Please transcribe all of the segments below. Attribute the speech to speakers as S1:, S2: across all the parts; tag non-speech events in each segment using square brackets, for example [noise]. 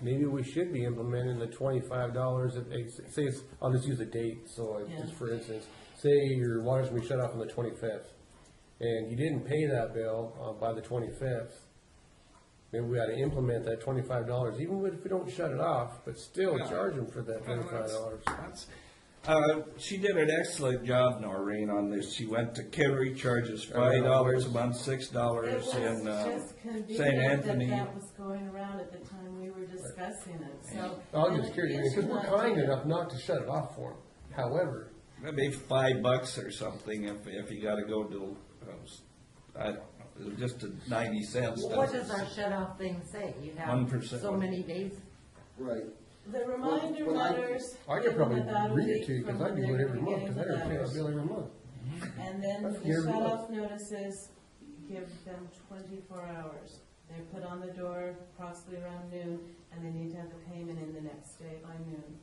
S1: maybe we should be implementing the twenty-five dollars, if, it's- say it's, I'll just use a date, so I- just
S2: Yeah.
S1: for instance, say your water's gonna be shut off on the twenty-fifth, and you didn't pay that bill, uh, by the twenty-fifth, maybe we ought to implement that twenty-five dollars, even if we don't shut it off, but still
S3: Yeah.
S1: charge them for that twenty-five dollars.
S3: That's- Uh, she did an excellent job, Noreen, on this. She went to Kerry, charges five dollars a month, six
S2: It
S3: dollars
S2: was
S3: in, uh,
S2: just
S3: St.
S2: convenient that
S3: Anthony.
S2: that was going around at the time we were discussing it, so.
S1: I'm
S2: and
S1: just
S2: it
S1: curious,
S2: is
S1: because we're
S2: not
S1: kind
S2: different.
S1: enough not to shut it off for them, however,
S3: Maybe five bucks or something if, if you gotta go to, uh, s- I don't know, it was just a ninety cents.
S4: Well, What does our shut off thing say? You have
S3: 1%.
S4: so many days?
S5: Right.
S2: The reminder
S5: Well, I-
S2: letters.
S1: I could
S2: given
S1: probably
S2: about a
S1: read it
S2: week
S1: to you, because
S2: from
S1: I do
S2: the
S1: it every month, because I
S2: beginning
S1: never
S2: of
S1: pay my
S2: the
S1: bill every month.
S2: letters. And then
S1: I
S2: the
S1: forget every
S2: shut
S1: month.
S2: off notices, give them twenty-four hours. They're put on the door approximately around noon, and they need to have the payment in the next day by noon.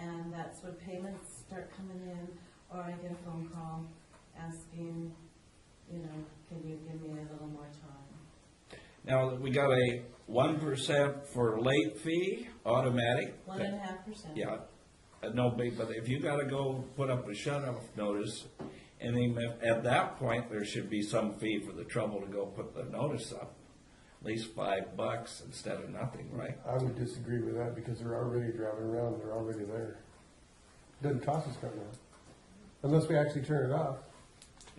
S2: And that's when payments start coming in, or I get a phone call asking, you know, can you give me a little more time?
S3: Now, we got a one percent for late fee, automatic.
S2: One and a half percent.
S3: Yeah, uh, no, big, but if you gotta go put up a shut-off notice, and then if- at that point, there should be some fee for the trouble to go put the notice up. At least five bucks instead of nothing, right?
S1: I would disagree with that because they're already driving around, they're already there. Doesn't cost us right now, unless we actually turn it off.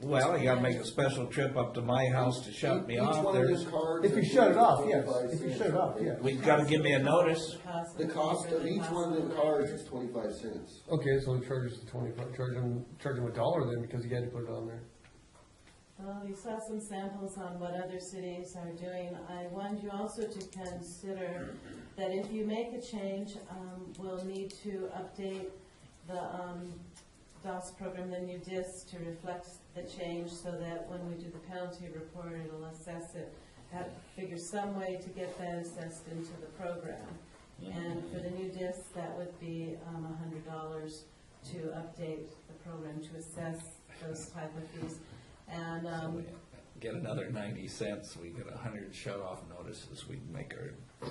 S3: Well, you gotta make a special trip up to my house to shut me
S5: Each
S3: off
S5: one of
S3: there.
S5: these cards
S1: If you
S5: is
S1: shut it off, yes,
S5: 25
S1: if you
S5: cents.
S1: shut it off, yeah.
S3: We gotta give me a notice.
S2: cost
S5: The cost of each one of them cards is twenty-five cents.
S1: Okay, so charge us the twenty-five, charge them, charge them a dollar then because you had to put it on there.
S2: Well, we saw some samples on what other cities are doing. I want you also to consider that if you make a change, um, we'll need to update the, um, DOS program, the new DIS, to reflect the change so that when we do the penalty report, it'll assess it. Have, figure some way to get that assessed into the program. And for the new DIS, that would be, um, a hundred dollars to update the program to assess those type of fees. And,
S3: So
S2: um, [laughs]
S3: we Get another ninety cents, we get a hundred shut-off notices, we can make our,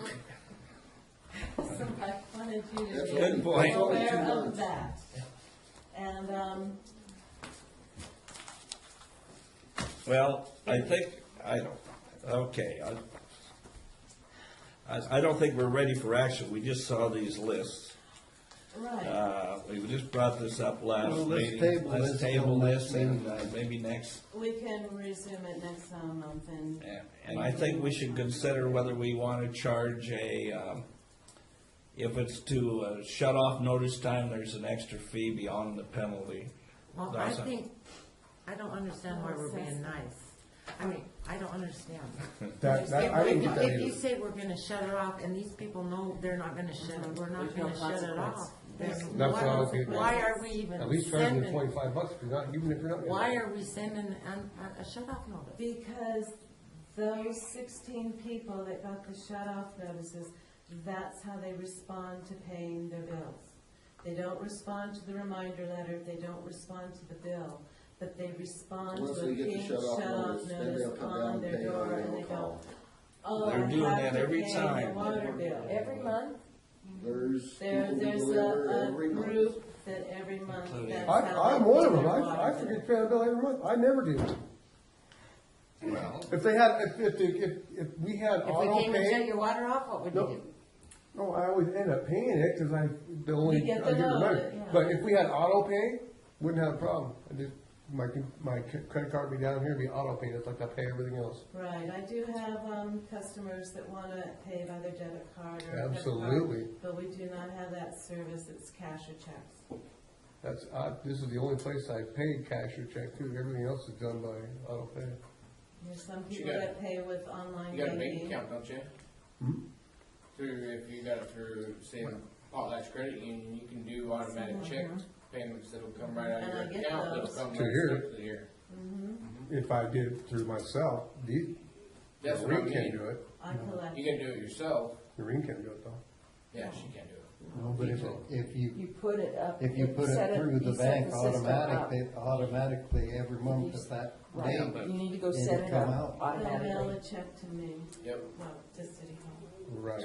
S2: So I wanted you to
S5: That's
S2: be
S3: good point.
S2: aware
S5: Two
S2: of
S5: months.
S2: that. And, um,
S3: well, I think, I don't, okay, I, I, I don't think we're ready for action, we just saw these lists.
S2: right,
S3: Uh, we just brought this up last
S5: Well, let's
S3: meeting.
S5: table
S3: Let's
S5: this
S3: table
S5: till
S3: this
S5: next
S3: and uh, maybe next,
S2: we can resume it next um, month and,
S3: and- and I think we should consider whether we want to charge a, um, if it's to uh, shut off notice time, there's an extra fee beyond the penalty.
S4: Well, I
S3: That's a-
S4: think, I don't understand why we're being nice. I mean, I don't understand.
S1: That, that, I didn't
S4: If
S1: get that
S4: if you
S1: either.
S4: say we're gonna shut it off and these people know they're not gonna shut it, we're not
S2: There's no
S4: gonna shut it
S2: consequence.
S4: off. then
S1: That's why
S4: why-
S1: I was getting at.
S4: Why are we even
S1: At least charge them
S4: sending,
S1: twenty-five bucks if you're not, even if you're not.
S4: why are we sending an- a, a shut off notice?
S2: because those sixteen people that got the shut-off notices, that's how they respond to paying their bills. They don't respond to the reminder letter, they don't respond to the bill, but they respond
S5: Once
S2: to
S5: they
S2: a
S5: get the
S2: pink
S5: shut-off
S2: shut-off
S5: notice, then
S2: notice
S5: they'll come down
S2: on
S5: and
S2: their
S5: pay
S2: door
S5: or
S2: and
S5: they'll
S2: they go,
S5: call.
S2: oh, I
S3: They're doing
S2: have
S3: that
S2: to
S3: every
S2: pay my
S3: time.
S2: water bill.
S4: Every month?
S5: There's
S2: There,
S5: people who
S2: there's
S5: deliver
S2: a, a
S5: every month.
S2: group that every month.
S3: Including-
S2: that's
S1: I,
S2: how
S1: I'm
S2: they
S1: one
S2: pay
S1: of them,
S2: their
S1: I, I
S2: water
S1: forget to
S2: bill.
S1: pay a bill every month, I never do.
S3: Well,
S1: If they had, if, if, if, if we had
S4: If we
S1: auto
S4: came and shut
S1: pay,
S4: your water off, what would you
S1: No.
S4: do?
S1: no, Oh, I always end up paying it, cause I, the only, I
S2: get
S1: get
S2: the note,
S1: remembered.
S2: yeah.
S1: But if we had auto pay, wouldn't have a problem, I just, my, my credit card would be down here, it'd be auto pay, that's like I pay everything else.
S2: Right, I do have, um, customers that wanna pay by their debit card or credit card.
S1: Absolutely.
S2: But we do not have that service, it's cash or checks.
S1: That's, I, this is the only place I paid cash or check too, everything else is done by auto pay.
S2: There's some
S6: you
S2: people
S6: got-
S2: that pay with online
S6: You got a bank
S2: banking.
S6: account, don't you?
S1: Hmm?
S6: Through, if you got it through, say, Potlatch Credit Union, you can do automatic check payments that'll come right out
S2: And I
S6: of your
S2: get
S6: account, that'll
S2: those.
S6: come right
S1: To here.
S6: straight to here.
S1: If I did it through myself, the,
S6: That's what I
S1: Noreen can't
S6: mean.
S1: do it,
S2: I collect,
S6: You can do it yourself,
S1: Noreen can't do it though.
S6: yeah, she can do it.
S7: No, but if, if you,
S8: You put it up.
S7: if you put
S8: set
S7: it through
S8: you
S7: the
S8: set
S7: bank
S8: system up.
S7: automatically, automatically every month at that
S8: Right.
S7: date,
S8: You need to go
S7: it'll
S8: set it
S7: come
S8: up
S7: out.
S2: they'll mail
S8: automatically.
S2: a check to me,
S6: Yep.
S2: well, to City Hall.
S1: Right.